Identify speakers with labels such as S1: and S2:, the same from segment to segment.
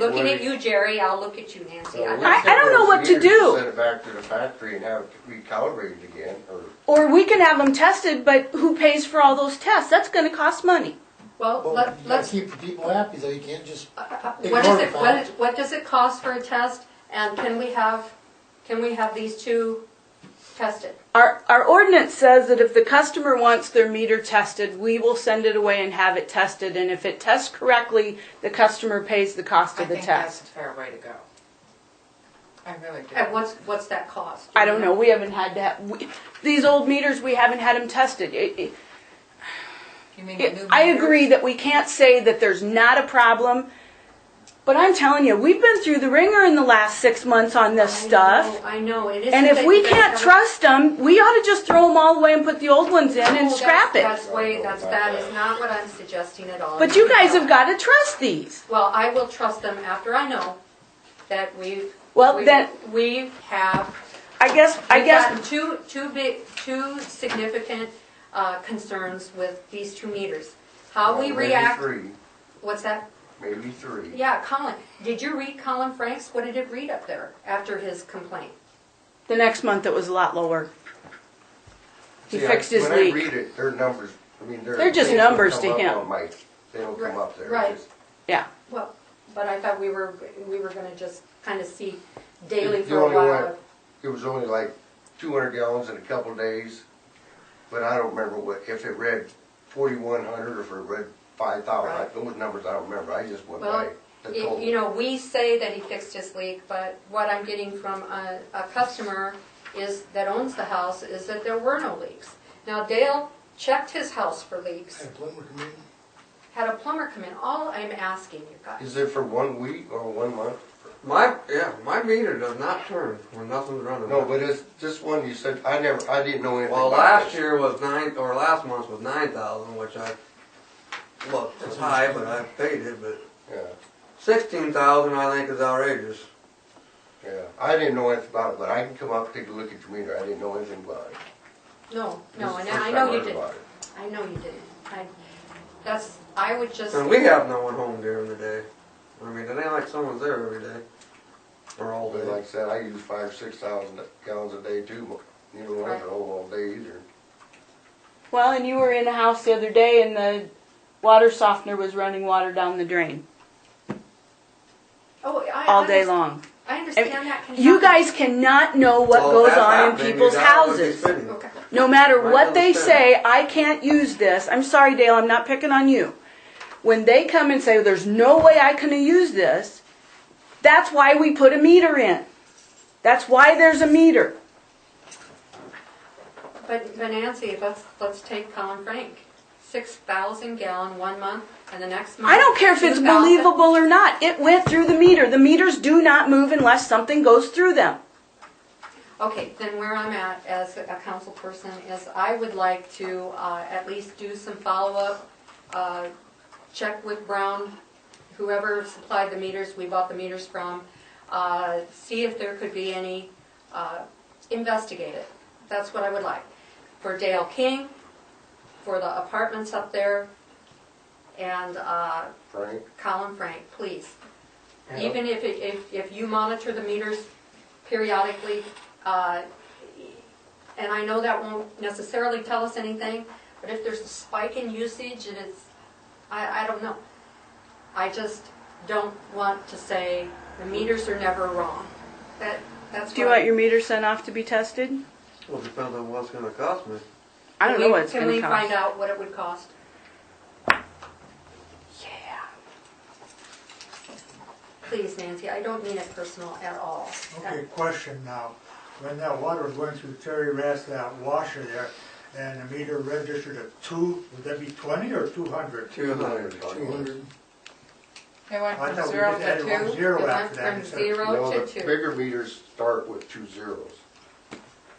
S1: Looking at you, Jerry, I'll look at you, Nancy. I-
S2: So it
S3: I-
S2: would
S3: I don't know
S2: take
S3: what
S2: us
S3: to
S2: years
S3: do.
S2: Send it back to the factory and have it recalibrated again, or,
S3: Or we can have them tested, but who pays for all those tests? That's going to cost money.
S1: Well,
S4: Well,
S1: let,
S4: you gotta
S1: let's,
S4: keep the people happy though, you can't just,
S1: uh, uh,
S4: It's
S1: what is it,
S4: horrifying.
S1: what, what does it cost for a test? And can we have, can we have these two tested?
S3: Our, our ordinance says that if the customer wants their meter tested, we will send it away and have it tested. And if it tests correctly, the customer pays the cost
S5: I
S3: of the
S5: think that's a
S3: test.
S5: fair way to go. I really do.
S1: And what's, what's that cost?
S3: I don't know. We haven't had to have, we, these old meters, we haven't had them tested. It- it-
S5: You mean the
S3: it-
S5: new
S3: I
S5: meters?
S3: agree that we can't say that there's not a problem. But I'm telling you, we've been through the ringer in the last six months on this
S1: I
S3: stuff.
S1: know, I know, it isn't.
S3: And if
S1: that
S3: we
S1: you guys
S3: can't
S1: haven't-
S3: trust them, we ought to just throw them all away and put the old ones in
S1: No,
S3: and
S1: that's-
S3: scrap it.
S1: That's way, that's, that is not what I'm suggesting at all.
S3: But you guys have got to trust these.
S1: Well, I will trust them after I know that we've.
S3: Well,
S1: we've-
S3: then-
S1: We have
S3: I guess, I
S1: We've
S3: guess,
S1: gotten two, two big, two significant uh, concerns with these two meters. How
S2: well,
S1: we
S2: maybe
S1: react,
S2: three,
S1: what's that?
S2: maybe three.
S1: Yeah, Colin, did you read Colin Franks? What did it read up there after his complaint?
S3: the next month it was a lot lower. He
S2: See, I-
S3: fixed his
S2: When I
S3: leak.
S2: read it, their numbers, I mean, their.
S3: They're just
S2: things don't
S3: numbers to
S2: come up
S3: him.
S2: on my- They don't come up there.
S1: Right.
S2: Just-
S3: Yeah.
S1: Well, but I thought we were, we were gonna just kind of see daily
S2: The
S1: for a
S2: only
S1: while.
S2: one- It was only like two hundred gallons in a couple days, but I don't remember what, if it read forty-one hundred or if it read
S1: Right.
S2: five thousand. Those numbers I don't remember, I just went by
S1: Well,
S2: the
S1: Y-
S2: total.
S1: You know, we say that he fixed his leak, but what I'm getting from a, a customer is, that owns the house, is that there were no leaks. Now Dale checked his house for leaks,
S4: had a plumber come in.
S1: had a plumber come in, all I'm asking you guys.
S2: Is it for one week or one month?
S6: My yeah, my meter does not turn when nothing's running.
S2: No, but it's, this one you said, I never, I didn't know anything
S6: well,
S2: about
S6: last
S2: this.
S6: year was nine or last month was nine thousand, which I look it's high, but I paid it. But
S2: Yeah,
S6: sixteen thousand I think is outrageous.
S2: yeah, I didn't know anything about it, but I can come up, take a look at your meter, I didn't know anything about it.
S1: No,
S2: This
S1: no,
S2: is
S1: and
S2: the first
S1: I
S2: time
S1: know you
S2: heard
S1: didn't,
S2: about it.
S1: I know you didn't. I, that's, I would just,
S6: And we have no one home during the day. I mean, it ain't like someone's there every day or all
S2: But
S6: day.
S2: like I said, I use five, six thousand gallons a day too, but you don't have it all day either.
S3: Well, and you were in a house the other day and the water softener was running water down the drain
S1: oh, I.
S3: all day
S1: understand-
S3: long.
S1: I understand that can happen.
S3: You guys cannot know what
S6: Well,
S3: goes
S6: that's
S3: on in
S6: happening,
S3: people's
S6: that would be
S3: houses.
S6: fitting.
S1: Okay,
S3: No matter
S6: Right,
S3: what they
S6: understand.
S3: say, I can't use this. I'm sorry, Dale, I'm not picking on you. When they come and say, there's no way I can use this, that's why we put a meter in. That's why there's a meter.
S1: but, but Nancy, let's, let's take Colin Frank, six thousand gallon one month, and the next month.
S3: I don't care if it's
S1: 2,000.
S3: believable or not, it went through the meter. The meters do not move unless something goes through them.
S1: Okay, then where I'm at as a council person is I would like to uh, at least do some follow-up, uh, check with Brown, whoever supplied the meters, we bought the meters from, uh, see if there could be any, uh, investigate it. That's what I would like. For Dale King, for the apartments up there, and uh,
S2: Frank,
S1: Colin Frank, please. Even if, it- if, if you monitor the meters periodically, uh, and I know that won't necessarily tell us anything, but if there's a spike in usage and it's, I, I don't know. I just don't want to say the meters are never wrong. That, that's.
S3: Do you
S1: what-
S3: want your meter sent off to be tested?
S6: Well, depends on what's going to cost me.
S3: I don't know
S1: Can we-
S3: what it's
S1: Can
S3: gonna
S1: we find
S3: cost.
S1: out what it would cost?
S3: Yeah.
S1: Please, Nancy, I don't mean it personal at all.
S4: Okay, question now, when that water was going through Terry Rath's that washer there, and the meter registered at two, would that be twenty or two hundred?
S6: Two hundred.
S2: Two hundred.
S5: They went
S4: Oh, I
S5: from
S4: thought we
S5: zero
S4: just
S5: to
S4: added one
S5: two.
S4: zero
S1: It went
S4: after that
S1: from
S4: instead of-
S1: zero
S2: No,
S1: to
S2: the
S1: two.
S2: bigger meters start with two zeros.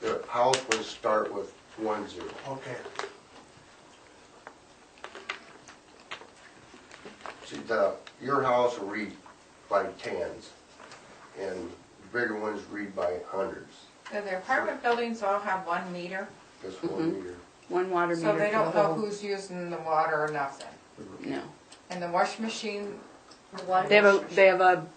S2: The house ones start with one zero.
S4: Okay,
S2: See, the, your house will read by tens, and the bigger ones read by hundreds.
S5: Do The apartment buildings all have one meter,
S2: That's one meter.
S3: One water
S5: so they
S3: meter.
S5: don't know who's using the water or nothing.
S3: No.
S5: And the washing machine
S1: The water
S3: They have a,
S1: district.
S3: they have a